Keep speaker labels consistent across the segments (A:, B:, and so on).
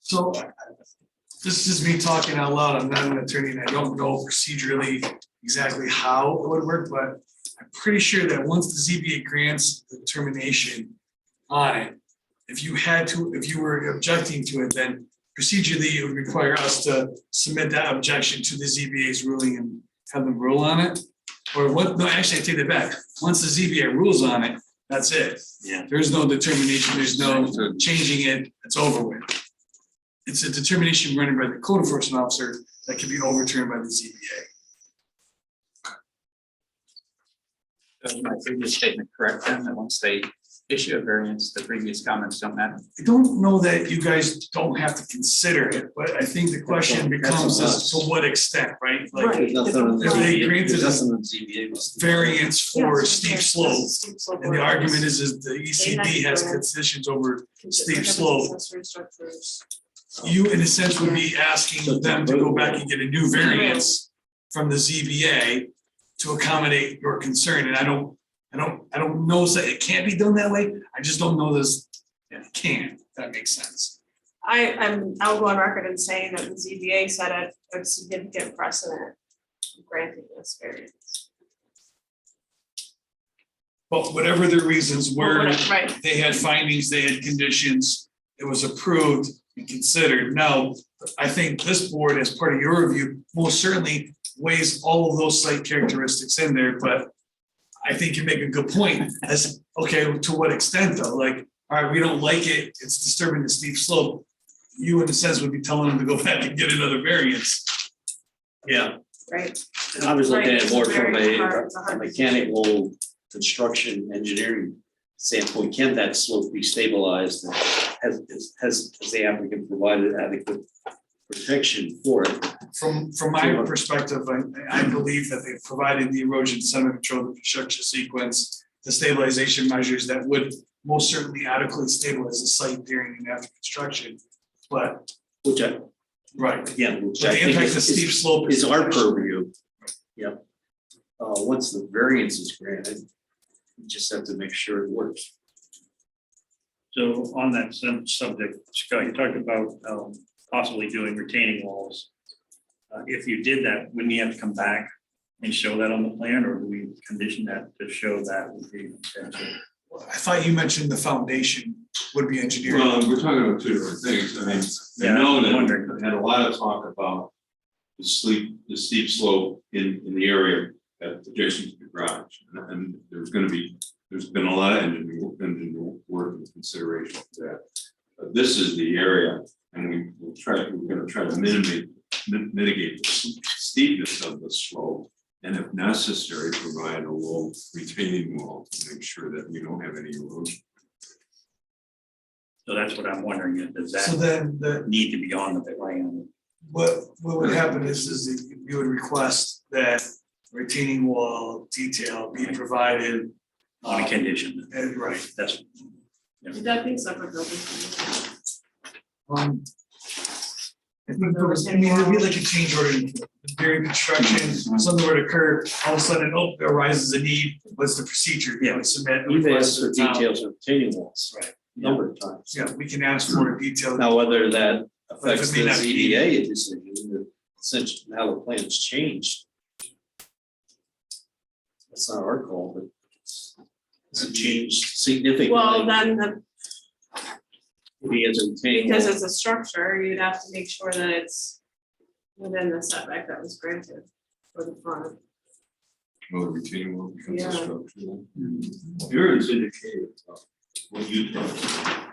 A: So I- I- this is me talking out loud. I'm not an attorney and I don't know procedurally exactly how it would work, but I'm pretty sure that once the ZBA grants the determination on it, if you had to, if you were objecting to it, then procedurally it would require us to submit that objection to the ZBA's ruling and have them rule on it. Or what, no, actually, I take that back. Once the ZBA rules on it, that's it.
B: Yeah.
A: There's no determination, there's no changing it, it's over with. It's a determination rendered by the code enforcement officer that can be overturned by the ZBA.
C: Is my previous statement correct then, that once they issue a variance, the previous comments don't matter?
A: I don't know that you guys don't have to consider it, but I think the question
B: That's on-
A: becomes
B: that's
A: is to
B: on us.
A: what extent, right? Like
D: Right.
A: If they granted
B: There's
A: a
B: nothing on ZBA must-
A: variance for steep slope,
D: slope.
A: and the argument is, is the ECB has concessions over, steep slope. you in a sense would be asking them to go back and get a new variance from the ZBA to accommodate your concern, and I don't, I don't, I don't know that it can't be done that way, I just don't know this, it can, if that makes sense.
D: I, I'm, I'll go on record and say that the ZBA set a, a significant precedent granting this variance.
A: But whatever the reasons were,
D: Right,
A: they had findings, they had conditions, it was approved and considered. Now, I think this board, as part of your review, most certainly weighs all of those site characteristics in there, but I think you make a good point as, okay, to what extent though? Like, all right, we don't like it, it's disturbing the steep slope. You in a sense would be telling them to go back and get another variance. Yeah.
D: right.
B: I was looking at it more from
D: Right, it's a
B: a
D: very- it's a
B: a
D: hard-
B: mechanical construction engineering standpoint. Can that slope be stabilized? And Has, is- has, has the applicant provided adequate protection for it?
A: From, from my perspective, I, I believe that they provided the erosion sediment control, the construction sequence, the stabilization measures that would most certainly adequately stabilize the site during and after construction. But,
B: Which I,
A: right,
B: yeah, which
A: but
B: I
A: the
B: think
A: impact
B: is-
A: of
B: is-
A: steep slope.
B: is our purview. Yep. Uh, once the variance is granted, you just have to make sure it works.
E: So on that sub- subject, Scott, you talked about um, possibly doing retaining walls. Uh, If you did that, wouldn't you have to come back and show that on the plan, or do we condition that to show that would be? essential?
A: I thought you mentioned the foundation would be engineered.
F: Well, we're talking about two different things, I mean,
E: Yeah,
F: I know
E: I'm
F: that
E: wondering.
F: we had a lot of talk about the sleep, the steep slope in, in the area at adjacent to the garage. And- And there's gonna be, there's been a lot of engineering, work- engineering work and consideration for that. But this is the area, and we will try, we're gonna try to mitigate, mi- mitigate the steepness of the slope. And if necessary, provide a low retaining wall to make sure that we don't have any erosion.
E: So that's what I'm wondering, is does
A: So
E: that
A: then the,
E: need to be on the plan?
A: what, what would happen is, is that you would request that retaining wall detail be provided.
E: On a condition,
A: And right,
E: that's,
D: Would that be separate buildings?
A: Um. I think there was, I mean, it'd be like a change order during construction, something were to occur, all of a sudden, oh, there arises a need, what's the procedure? Yeah, we submit. we
B: We've asked
A: request
B: for
A: it now.
B: details of retaining walls.
A: Right.
B: Number of times.
A: Yeah, we can ask for a detailed.
B: Now, whether that
A: But
B: affects
A: it may
B: the
A: not be needed.
B: ZBA decision, that since now the plan's changed. That's not our call, but it's it's changed
D: Well,
B: significantly.
D: then the,
B: Maybe it's a retaining
D: because
B: wall.
D: it's a structure, you'd have to make sure that it's within the setback that was granted for the front.
F: Well, the retaining wall becomes
D: Yeah.
F: a structure. Here is indicated uh, what you thought.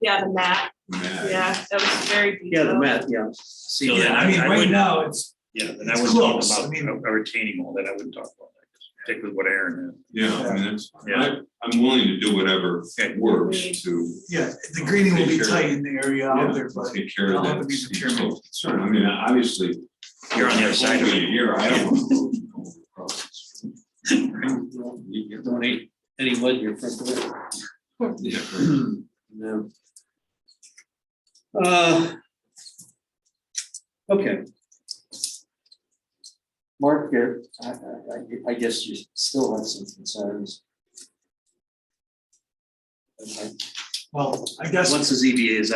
D: Yeah, the mat,
F: Mad.
D: yeah, that was very detailed.
B: Yeah, the mat, yeah. See,
E: So
A: Yeah, I mean,
E: I
A: right
E: would-
A: now, it's,
E: yeah, then I
A: It's
E: wouldn't talk
A: close, I
E: about
A: mean-
E: a a retaining wall, then I wouldn't talk about that, particularly what Aaron
F: Yeah, I mean, that's,
E: Yeah.
F: I, I'm willing to do whatever
E: Okay.
F: works to.
A: yeah, the grading will be tight in the area out there, but
F: Take care
A: I'll
F: of
A: have to
F: that.
A: be determined.
F: steep slope concern. I mean, obviously.
E: You're on the other side of it.
F: Here, I don't. want to go across the street. You get that?
B: Don't eat any wood in your front door.
F: Yeah.
B: No. Uh, Okay. Mark, here, I, I, I- I guess you still have some concerns. Okay.
A: well, I guess.
B: Once the ZBA is